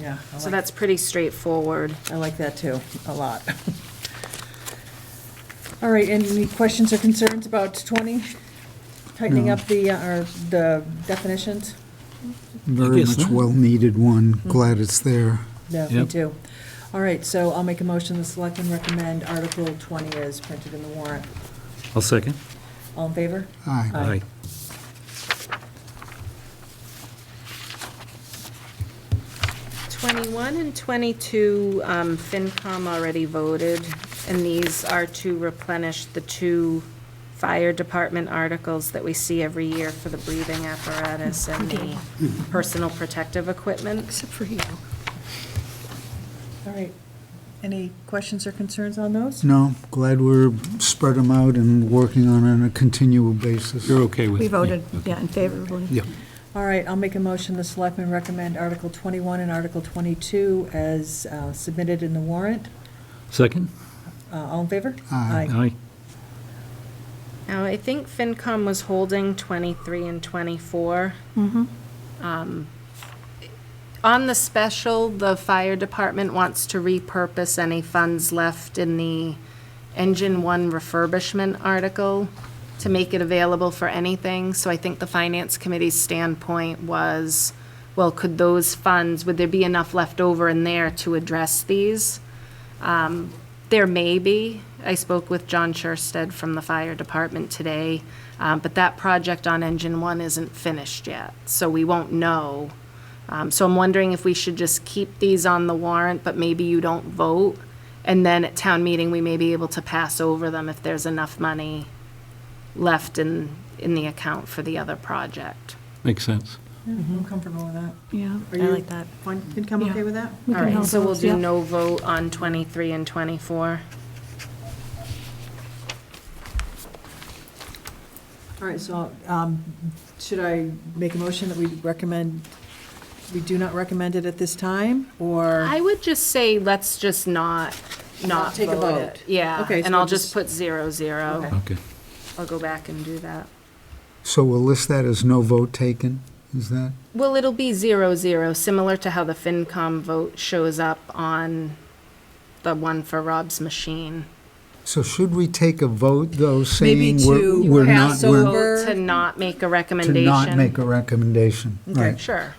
Yeah. I So like- that's pretty straightforward. I like that too, a lot. All right, any questions or concerns about 20? Tightening No. up the, uh, or the definitions? I Very guess much not. well-needed one, glad it's there. No, me Yep. too. All right, so I'll make a motion, the selectmen recommend Article 20 is printed in the warrant. I'll second. All in favor? Aye. Aye. Twenty-one and twenty-two, um, FinCom already voted, and these are to replenish the two fire department articles that we see every year for the breathing apparatus and the personal protective equipment. Except for you. All right. Any questions or concerns on those? No, glad we're spread them out and working on it on a continual basis. You're okay with? We voted, yeah, in favorably. Yeah. All right, I'll make a motion, the selectmen recommend Article 21 and Article 22 as uh, submitted in the warrant. Second? Uh, All in favor? Aye. Aye. Now, I think FinCom was holding twenty-three and twenty-four. Um, On the special, the fire department wants to repurpose any funds left in the Engine One refurbishment article to make it available for anything. So I think the finance committee's standpoint was, well, could those funds, would there be enough left over in there to address these? Um, There may be. I spoke with John Scherstedt from the fire department today, um, but that project on Engine One isn't finished yet, so we won't know. Um, So I'm wondering if we should just keep these on the warrant, but maybe you don't vote, and then at town meeting, we may be able to pass over them if there's enough money left in, in the account for the other project. Makes sense. Yeah, I'm comfortable with that. Yeah, I Are you- like that. Fine, FinCom Yeah. okay with that? We All can right, hold so we'll those, do yeah. no vote on 23 and 24. All right, so um, should I make a motion that we recommend, we do not recommend it at this time, or? I would just say, let's just not, not Take a vote vote. it. Yeah, Okay, so and I'll we'll just just- put zero, Okay. zero. Okay. I'll go back and do that. So we'll list that as no vote taken, is that? Well, it'll be zero, zero, similar to how the FinCom vote shows up on the one for Rob's machine. So should we take a vote, though, Maybe saying we're to we're not, pass we're Over- Vote to not make a to recommendation. not make a recommendation? Okay. Right. Sure.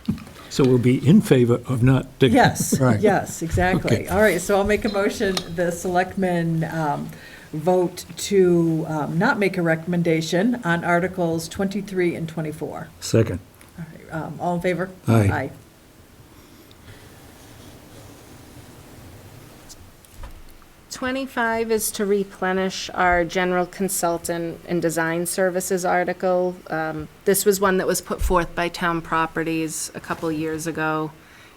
So we'll be in favor of not taking? Yes, Right. yes, exactly. Okay. All right, so I'll make a motion, the selectmen um, vote to um, not make a recommendation on Articles 23 and 24. Second. All right, um, All in favor? Aye. Twenty-five is to replenish our general consultant and design services article. Um, This was one that was put forth by Town Properties a couple years ago,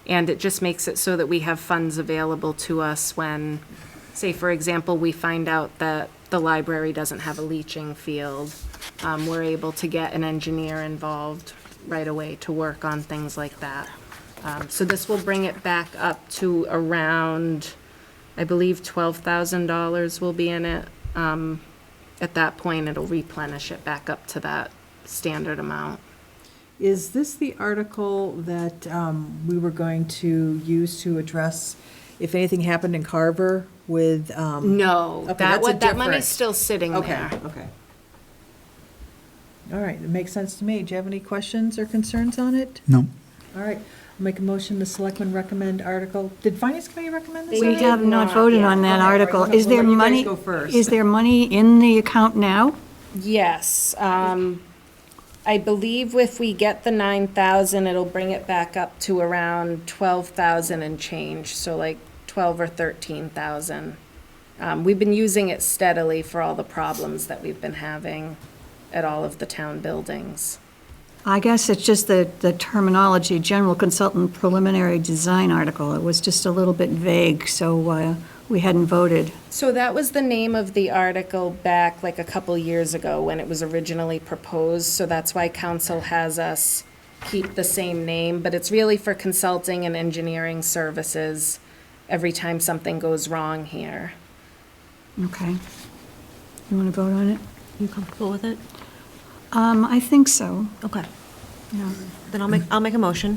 and it just makes it so that we have funds available to us when, say, for example, we find out that the library doesn't have a leaching field. Um, We're able to get an engineer involved right away to work on things like that. Um, So this will bring it back up to around, I believe twelve thousand dollars will be in it. Um, at that point, it'll replenish it back up to that standard amount. Is this the article that um, we were going to use to address if anything happened in Carver with? um, No, Okay, that that's a would, that money's different- still sitting Okay, there. okay. All right, it makes sense to me. Do you have any questions or concerns on it? No, All right, I'll make a motion, the selectmen recommend article, did finance committee recommend this? They We did have not not, voted yeah. on that Okay, article. we're gonna Is there let you guys money, go first. is there money in the account now? Yes, um, I believe if we get the nine thousand, it'll bring it back up to around twelve thousand and change, so like twelve or thirteen thousand. Um, we've been using it steadily for all the problems that we've been having at all of the town buildings. I guess it's just the, the terminology, general consultant preliminary design article. It was just a little bit vague, so uh, we hadn't voted. So that was the name of the article back like a couple years ago when it was originally proposed, so that's why council has us keep the same name, but it's really for consulting and engineering services every time something goes wrong here. Okay. You want to vote on it? You comfortable with it? Um, I think so. Okay, Yeah. then I'll make, I'll make a motion